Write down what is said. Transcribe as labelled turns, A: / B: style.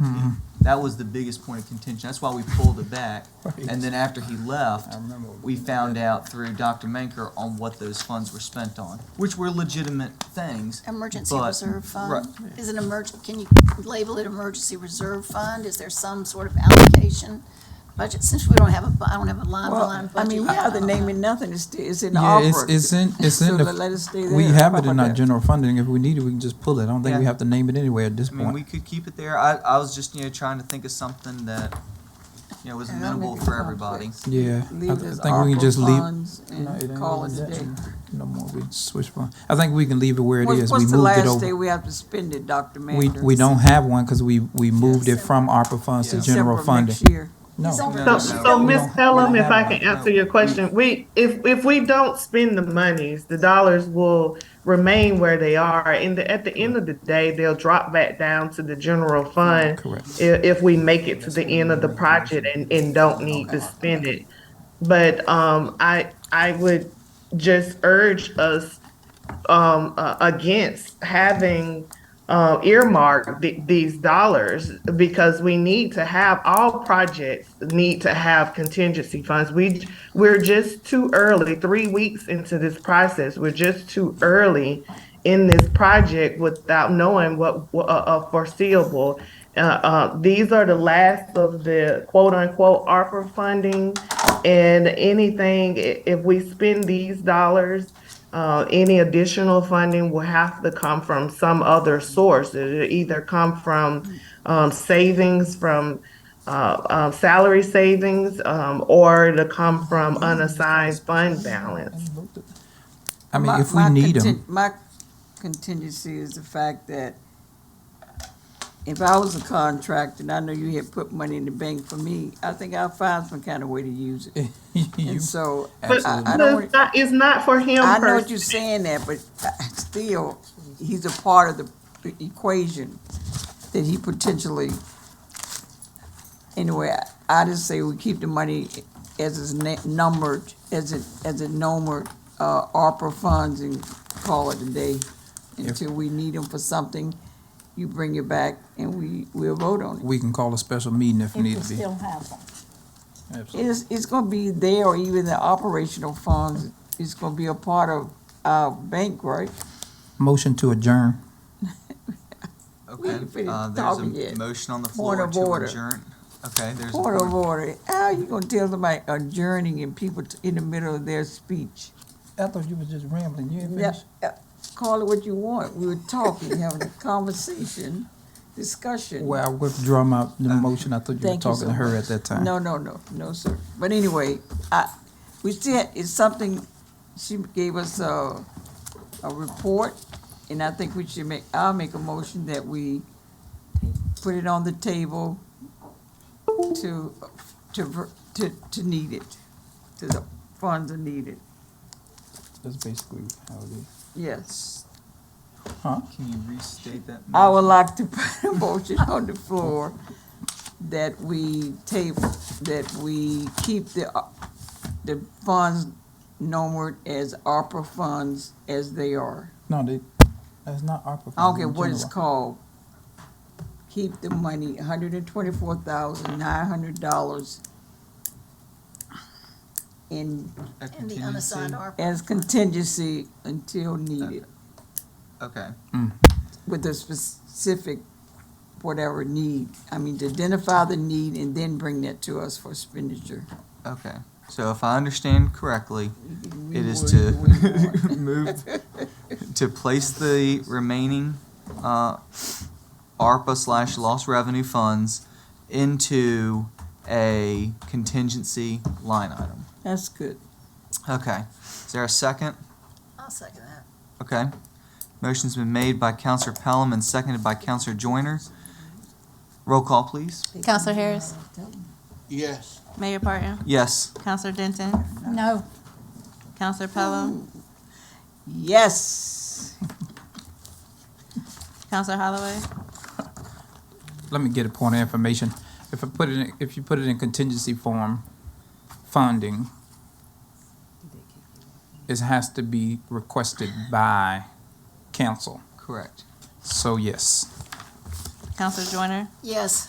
A: Mm-hmm.
B: That was the biggest point of contention. That's why we pulled it back.
A: Right.
B: And then after he left,
A: I remember what we
B: we found out through Dr. Menker on what those funds were spent on, which were legitimate things.
C: Emergency
B: but-
C: reserve fund?
B: Right.
C: Is an emerg, can you label it emergency reserve fund? Is there some sort of allocation budget? Since we don't have a, bu- I don't have a line for line
D: Well, I
C: budget. uh,
D: mean, we have the name and nothing, it's, it's in the
A: Yeah, it's,
D: opera.
A: it's in, it's
D: So
A: in
D: let- let it
A: the,
D: stay
A: we
D: there.
A: have
D: How
A: it in
D: about
A: our
D: that?
A: general funding. If we need it, we can just pull it. I don't think we
B: Yeah.
A: have to name it anyway at this
B: I mean, we
A: point.
B: could keep it there. I, I was just, you know, trying to think of something that, you know, was
D: And that'll make
B: amenable
D: it
B: for everybody.
D: complex.
A: Yeah, I
D: Leave
A: th- I
D: this
A: think we can
D: opera
A: just leave.
D: funds
A: No, it
D: and
A: ain't
D: call
A: gonna
D: it
A: be
D: a
A: that
D: day.
A: soon. No more, we switch funds. I think we can leave it where it
D: What's,
A: is. We
D: what's the
A: moved it
D: last day
A: over.
D: we have to spend it, Dr.
A: We,
D: Mander?
A: we don't have one because we, we moved it from ARPA funds to
B: Yeah.
A: general
D: Except for
A: funding.
D: next year.
A: No,
B: No,
E: So,
B: no,
E: so
B: no.
E: Ms. Pelham, if I can
B: No.
E: answer your question, we, if, if we don't spend the monies, the dollars will remain where they are. And the- at the end of the day, they'll drop back down to the general fund.
A: Correct.
E: If, if we make it to the end of the project and, and don't need to spend it. But, um, I, I would just urge us, um, uh, against having, uh, earmark th- these dollars because we need to have all projects need to have contingency funds. We we're just too early, three weeks into this process. We're just too early in this project without knowing what, what uh, uh, foreseeable. Uh, uh, these are the last of the quote unquote ARPA funding, and anything i- if we spend these dollars. Uh, any additional funding will have to come from some other source. It'll either come from um, savings from uh, um, salary savings um, or it'll come from unassigned fund balance.
A: I mean,
D: My-
A: if we
D: my
A: need
D: contin-
A: them,
D: My contingency is the fact that if I was a contractor, and I know you had put money in the bank for me, I think I'll find some kind of way to use it.
A: you
D: And so, I,
E: But
D: I- I
E: no,
D: don't,
E: it's not, it's not for him
D: I know
E: per
D: what you're saying that, but I- still, he's a part of the e, equation that he potentially, anyway, I- I just say we keep the money as it's na- numbered, as it, as it numbered, uh, ARPA funds and call it a day until we need them for something, you bring it back and we, we'll vote on it.
A: we can call a special meeting if need to be.
C: have them.
A: Absolutely.
D: It's, it's gonna be there or even the operational funds, it's gonna be a part of our bank, right?
A: Motion to adjourn.
D: We ain't
B: Okay,
D: finished
B: uh,
D: talking
B: there's a
D: yet.
B: motion on the
D: Point
B: floor
D: of
B: to
D: order.
B: adjourn. Okay, there's a
D: Point of
B: point.
D: order. oh, How you gonna tell somebody adjourning and people t- in the middle of their speech?
A: I thought you was just rambling. You ain't
D: Yeah, uh, Call it what you want. We were talking, having a conversation, discussion.
A: Well, I withdraw my, the motion. I thought you were
D: Uh, Thank you
A: talking
D: so
A: to her
D: much.
A: at that time.
D: No, no, no, no, sir. But anyway, I, we said it's something, she gave us a, a report, and I think we should make, I'll make a motion that we put it on the table to, to, ver- to, to need it, to the funds are needed,
A: That's basically how it is.
D: yes.
B: Can you restate that?
D: I
B: motion?
D: would like to put a motion on the floor that we table, that we keep the, uh, the funds numbered as ARPA funds as they are.
A: No, they, that's not ARPA.
D: I don't
A: funds
D: care
A: in
D: what it's
A: general.
D: called. Keep the money, hundred and twenty-four thousand, nine hundred dollars
B: A
D: in,
C: And the
B: contingency?
C: unassigned ARPA.
D: as contingency until needed,
B: Okay,
D: with a specific whatever need. I mean, to identify the need and then bring that to us for expenditure.
B: okay. So if I understand correctly,
D: We
B: it is
D: would-
B: to
D: we would.
B: move, to place the remaining uh, ARPA slash lost revenue funds into a contingency line item.
D: That's good.
B: Okay, is there a second?
C: I'll second that.
B: Okay. Motion's been made by Counselor Pelham and seconded by Counselor Joyner. Roll call, please.
F: Counselor Harris,
G: Yes.
F: Mayor Parton,
B: Yes.
F: Counselor Denton,
C: No.
F: Counselor Pelham,
D: Yes.
F: Counselor Holloway,
A: Let me get a point of information. If I put it, in- if you put it in contingency form, funding, it has to be requested by council.
B: Correct.
A: So yes.
F: Counselor Joyner,
C: Yes.